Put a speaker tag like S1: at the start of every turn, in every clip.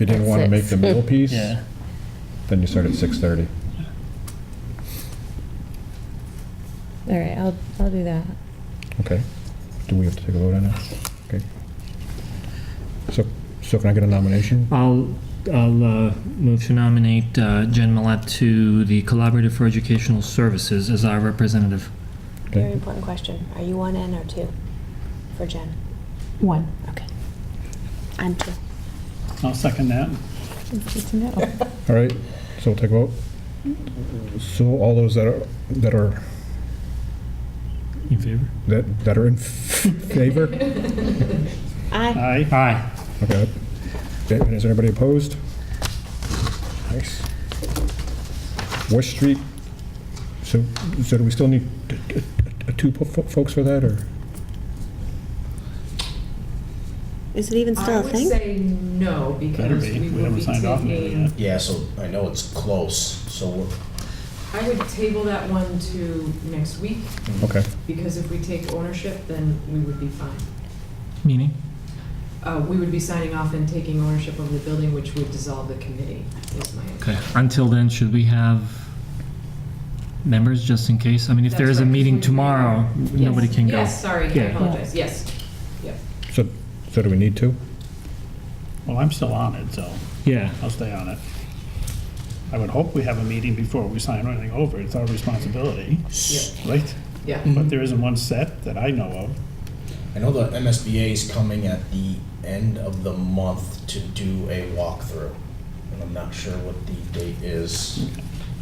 S1: you didn't
S2: At
S1: want to make
S2: six.
S1: the middle piece,
S3: Yeah.
S1: then you start at 6:30.
S2: All right, I'll, I'll do that.
S1: Okay. Do we have to take a vote on that? Okay. So, so can I get a nomination?
S3: I'll, I'll uh, move to nominate uh, Jen Millette to the Collaborative for Educational Services as our representative.
S4: Very
S1: Okay.
S4: important question. Are you one N or two for Jen?
S5: One.
S4: Okay. I'm two.
S6: I'll second that.
S5: It's a no.
S1: All right, so we'll take a vote. So all those that are, that are,
S3: In favor?
S1: that that are in favor?
S4: I
S6: Aye.
S3: Aye.
S1: Okay. Okay, and Is anybody opposed? Nice. West Street, so, so do we still need t- t- t- two po- fo- folks for that, or?
S4: Is it even
S7: I
S4: still a
S7: would
S4: thing?
S7: say no,
S6: Better
S7: because we
S6: be. We
S7: would
S6: haven't
S7: be
S6: signed off on it yet.
S7: taking,
S8: Yeah, so I know it's close, so we're,
S7: I would table that one to next week,
S1: Okay,
S7: because if we take ownership, then we would be fine.
S3: Meaning?
S7: Uh, we would be signing off and taking ownership of the building, which would dissolve the committee, is my.
S3: Okay. Until then, should we have members just in case? I mean, if there
S7: That's
S3: is a
S7: right.
S3: meeting tomorrow,
S7: Yes.
S3: nobody can go.
S7: Yes, sorry, I
S3: Yeah.
S7: apologize, yes. Yep.
S1: so, so do we need two?
S6: Well, I'm still on it, so
S3: Yeah.
S6: I'll stay on it. I would hope we have a meeting before we sign anything over. It's our responsibility,
S7: Yep.
S6: right?
S7: Yeah.
S6: But there isn't one set that I know of.
S8: I know the MSBA is coming at the end of the month to do a walkthrough, and I'm not sure what the date is,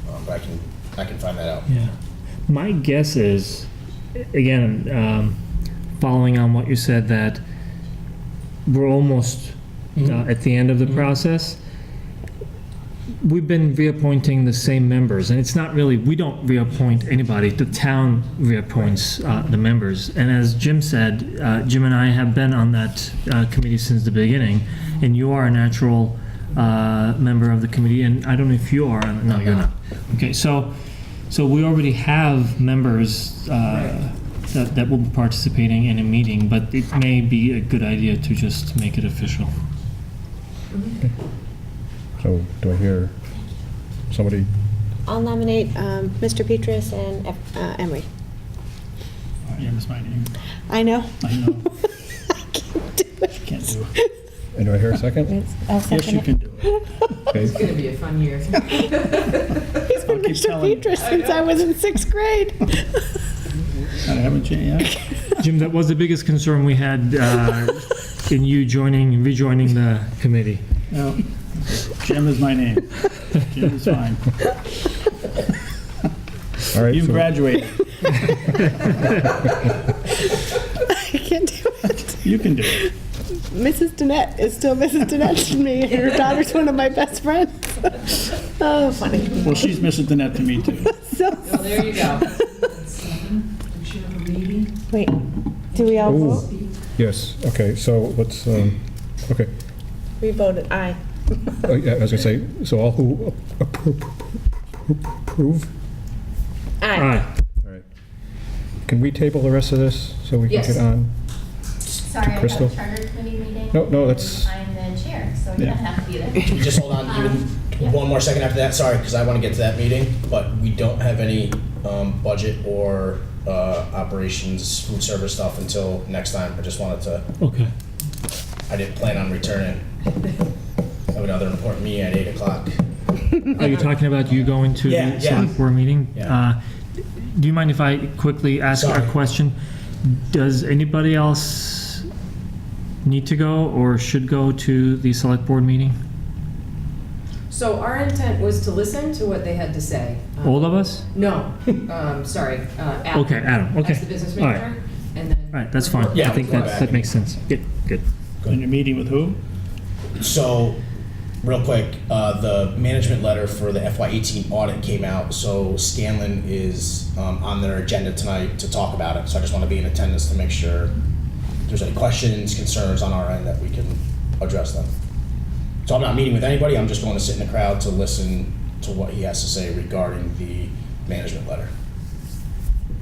S8: um, but I can, I can find that out.
S3: Yeah. My guess is, again, um, following on what you said, that we're almost uh, at the end of the process. We've been reappointing the same members, and it's not really, we don't reappoint anybody. The town reappoints uh, the members. And as Jim said, uh, Jim and I have been on that uh, committee since the beginning, and you are a natural uh, member of the committee, and I don't know if you are, no, you're not. Okay, so, so we already have members uh, that that will be participating in a meeting, but it may be a good idea to just make it official.
S1: So do I hear somebody,
S4: I'll nominate um, Mr. Petrus and uh, Emery.
S6: Yeah, Miss Minor,
S4: I know.
S6: I know,
S4: I can't do it.
S6: can't do it.
S1: and do I hear a second?
S5: It's- I'll
S6: Yes, you
S5: second it.
S6: can do it.
S1: Okay,
S7: It's gonna be a fun year.
S4: He's been
S6: I'll keep
S4: Mr.
S6: telling you.
S4: Petrus since I was in sixth grade.
S6: I haven't changed yet.
S3: Jim, that was the biggest concern we had uh, in you joining, rejoining the committee.
S6: No. Jim is my name. Jim is fine.
S1: all right.
S6: You've
S1: so-
S6: graduated.
S4: I can't do it.
S6: You can do it.
S4: Mrs. Danette is still Mrs. Danette to me, and her daughter's one of my best friends. oh, funny.
S6: Well, she's Mrs. Danette to me, too.
S4: So,
S7: Well, there you go.
S9: We should have a meeting,
S5: Wait, do we all
S1: Ooh.
S5: vote?
S1: Yes, okay, so let's, um, okay,
S4: we voted aye.
S1: Uh, yeah, as I say, so all who appro- approve?
S3: All right.
S1: All right. Can we table the rest of this so we can
S7: Yes.
S1: get on?
S10: Sorry, I've got
S1: Crystal?
S10: a charter committee meeting.
S1: No, no,
S10: and
S1: that's-
S10: I'm the chair, so you
S6: Yeah.
S10: don't have to be there.
S8: Can we just hold on even one more second after that? Sorry, because I want to get to that meeting, but we don't have any, um, budget or, uh, operations, food service stuff until next time. I just wanted to,
S3: Okay.
S8: I didn't plan on returning. I have another important meeting at eight o'clock.
S3: Are you talking about you going to
S8: Yeah,
S3: the
S8: yeah.
S3: select board meeting?
S8: Yeah.
S3: Uh, Do you mind if I quickly ask a
S8: Sorry.
S3: question? Does anybody else need to go or should go to the select board meeting?
S7: So our intent was to listen to what they had to say. Um,
S3: All of us?
S7: No, um, sorry, uh, Adam.
S3: Okay, Adam, okay.
S7: As the business
S3: All right.
S7: manager, and then.
S3: All right, that's fine.
S8: Yeah,
S3: I think
S8: we're
S3: that,
S8: back.
S3: that makes sense. Good, good.
S6: And you're meeting with who?
S8: So, real quick, uh, the management letter for the FY18 audit came out, so Scanlon is um, on their agenda tonight to talk about it. So I just want to be in attendance to make sure if there's any questions, concerns on our end that we can address them. So I'm not meeting with anybody, I'm just going to sit in the crowd to listen to what he has to say regarding the management letter.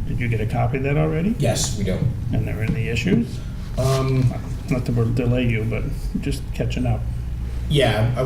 S6: Did you get a copy of that already?
S8: Yes, we do.
S6: And there were any issues?
S8: Um,
S6: Not to delay you, but just catching up.
S8: yeah, I